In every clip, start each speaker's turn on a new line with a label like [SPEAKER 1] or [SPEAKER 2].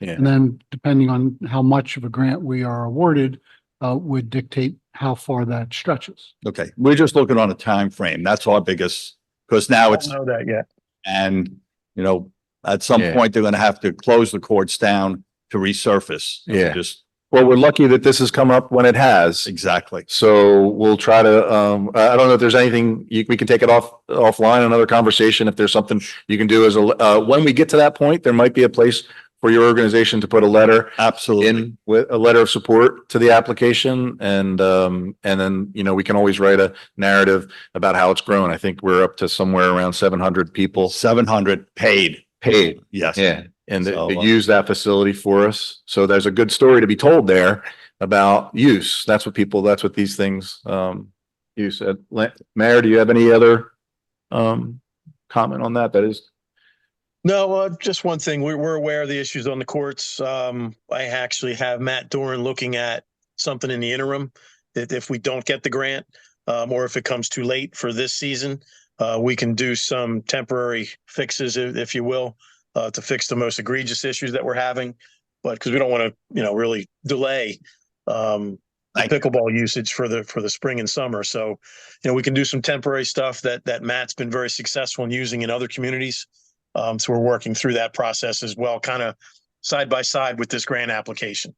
[SPEAKER 1] Yeah.
[SPEAKER 2] And then depending on how much of a grant we are awarded, uh, would dictate how far that stretches.
[SPEAKER 1] Okay, we're just looking on a time frame. That's our biggest, because now
[SPEAKER 3] don't
[SPEAKER 1] it's,
[SPEAKER 3] know that yet.
[SPEAKER 1] and, you know, at some
[SPEAKER 4] Yeah.
[SPEAKER 1] point, they're gonna have to close the courts down to resurface. and we
[SPEAKER 4] Yeah.
[SPEAKER 1] Just,
[SPEAKER 4] Well, we're lucky that this has come up when it has.
[SPEAKER 1] exactly.
[SPEAKER 4] So we'll try to, um, I I don't know if there's anything, you, we can take it off, offline, another conversation. If there's something you can do as a, uh, when we get to that point, there might be a place for your organization to put a letter
[SPEAKER 1] Absolutely.
[SPEAKER 4] in with a letter of support to the application and, um, and then, you know, we can always write a narrative about how it's grown. I think we're up to somewhere around seven hundred people
[SPEAKER 1] Seven hundred paid,
[SPEAKER 4] paid
[SPEAKER 1] yes.
[SPEAKER 4] yeah, and they-
[SPEAKER 1] So,
[SPEAKER 4] they
[SPEAKER 1] uh,
[SPEAKER 4] use that facility for us. So there's a good story to be told there about use. That's what people, that's what these things um use. Uh, La- Mayor, do you have any other um comment on that? That is,
[SPEAKER 3] No, uh, just one thing. We're, we're aware of the issues on the courts. Um, I actually have Matt Doran looking at something in the interim. That if we don't get the grant, um, or if it comes too late for this season, uh, we can do some temporary fixes, if, if you will, uh, to fix the most egregious issues that we're having. But because we don't want to, you know, really delay, um, the
[SPEAKER 1] Thank you.
[SPEAKER 3] pickleball usage for the, for the spring and summer. So, you know, we can do some temporary stuff that, that Matt's been very successful in using in other communities. Um, so we're working through that process as well, kind of side by side with this grant application.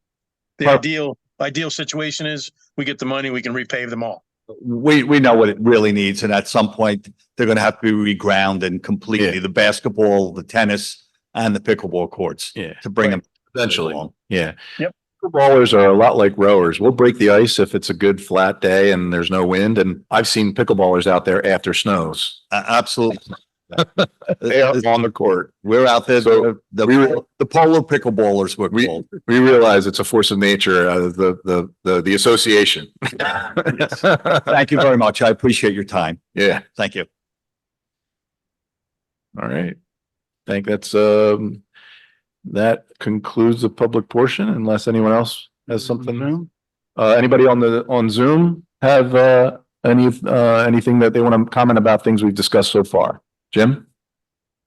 [SPEAKER 3] The
[SPEAKER 1] Perfect.
[SPEAKER 3] ideal, ideal situation is we get the money, we can repave them all.
[SPEAKER 1] We, we know what it really needs, and at some point, they're gonna have to be regrounded completely, the basketball, the tennis, and the pickleball courts
[SPEAKER 4] yeah,
[SPEAKER 1] to bring them.
[SPEAKER 4] Eventually.
[SPEAKER 1] along.
[SPEAKER 4] yeah.
[SPEAKER 3] Yep.
[SPEAKER 4] Pickleballers are a lot like rowers. We'll break the ice if it's a good flat day and there's no wind. And I've seen pickleballers out there after snows.
[SPEAKER 1] A- Absolutely.
[SPEAKER 4] They are on the court.
[SPEAKER 1] We're out there,
[SPEAKER 4] So,
[SPEAKER 1] the, the
[SPEAKER 4] we were-
[SPEAKER 1] the polo pickleballers were
[SPEAKER 4] We-
[SPEAKER 1] called.
[SPEAKER 4] We realize it's a force of nature, uh, the, the, the, the association.
[SPEAKER 1] Thank you very much. I appreciate your time.
[SPEAKER 4] Yeah.
[SPEAKER 1] Thank you.
[SPEAKER 4] All right. I think that's, um, that concludes the public portion unless anyone else has something.
[SPEAKER 2] Zoom?
[SPEAKER 4] Uh, anybody on the, on Zoom have, uh, any, uh, anything that they want to comment about things we've discussed so far? Jim?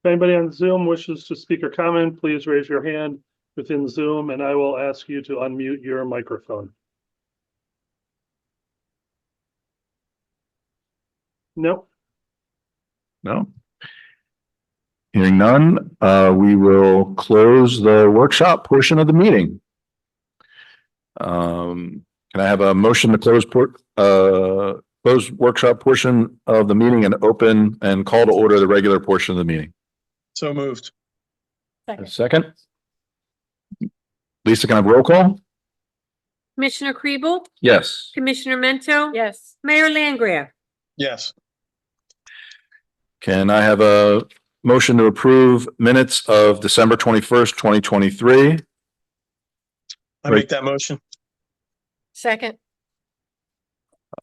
[SPEAKER 5] If anybody on Zoom wishes to speak or comment, please raise your hand within Zoom and I will ask you to unmute your microphone. Nope.
[SPEAKER 4] No? Hearing none, uh, we will close the workshop portion of the meeting. Um, can I have a motion to close port, uh, close workshop portion of the meeting and open and call to order the regular portion of the meeting?
[SPEAKER 3] So moved.
[SPEAKER 4] A second? Lisa, can I have roll call?
[SPEAKER 6] Commissioner Kribel?
[SPEAKER 4] Yes.
[SPEAKER 6] Commissioner Mento?
[SPEAKER 7] Yes.
[SPEAKER 6] Mayor Langgraf?
[SPEAKER 3] Yes.
[SPEAKER 4] Can I have a motion to approve minutes of December twenty-first, twenty twenty-three?
[SPEAKER 3] I
[SPEAKER 4] Right.
[SPEAKER 3] make that motion.
[SPEAKER 7] Second.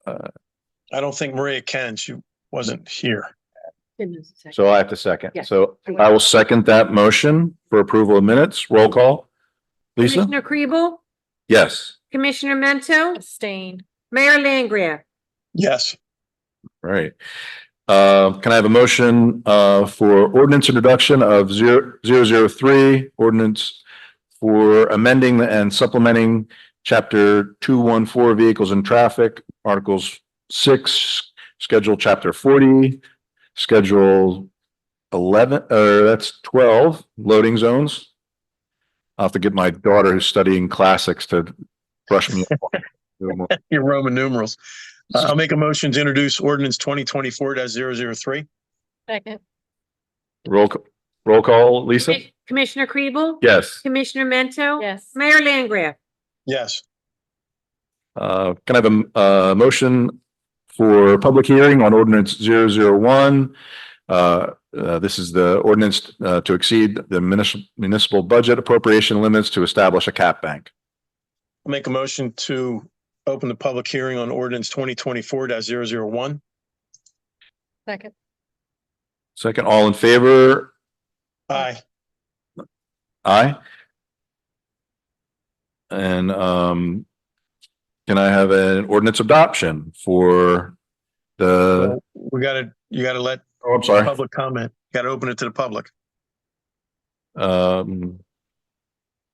[SPEAKER 3] I don't think Maria can. She wasn't here.
[SPEAKER 4] So I have to second.
[SPEAKER 7] Yeah.
[SPEAKER 4] So I will second that motion for approval of minutes. Roll call. Lisa?
[SPEAKER 6] Commissioner Kribel?
[SPEAKER 4] Yes.
[SPEAKER 6] Commissioner Mento?
[SPEAKER 7] Abstain.
[SPEAKER 6] Mayor Langgraf?
[SPEAKER 3] Yes.
[SPEAKER 4] Right. Uh, can I have a motion, uh, for ordinance introduction of zero, zero, zero three, ordinance for amending and supplementing chapter two, one, four, vehicles and traffic, articles six, schedule chapter forty, schedule eleven, uh, that's twelve, loading zones. I'll have to get my daughter who's studying classics to brush me. up.
[SPEAKER 3] Your Roman numerals. Uh, I'll make a motion to introduce ordinance twenty twenty-four 3
[SPEAKER 7] Second.
[SPEAKER 4] Roll, c- roll call, Lisa?
[SPEAKER 6] Commissioner Kribel?
[SPEAKER 4] Yes.
[SPEAKER 6] Commissioner Mento?
[SPEAKER 7] Yes.
[SPEAKER 6] Mayor Langgraf?
[SPEAKER 3] Yes.
[SPEAKER 4] Uh, can I have a, m- uh motion for public hearing on ordinance zero zero one? Uh, uh, this is the ordinance, uh, to exceed the municipal, municipal budget appropriation limits to establish a cap bank.
[SPEAKER 3] I'll make a motion to open the public hearing on ordinance twenty twenty-four one
[SPEAKER 7] Second.
[SPEAKER 4] Second, all in favor?
[SPEAKER 3] Aye.
[SPEAKER 4] Aye. And, um, can I have an ordinance adoption for the,
[SPEAKER 3] We gotta, you gotta let
[SPEAKER 4] oh, I'm sorry.
[SPEAKER 3] public comment. Gotta open it to the public.
[SPEAKER 4] Um,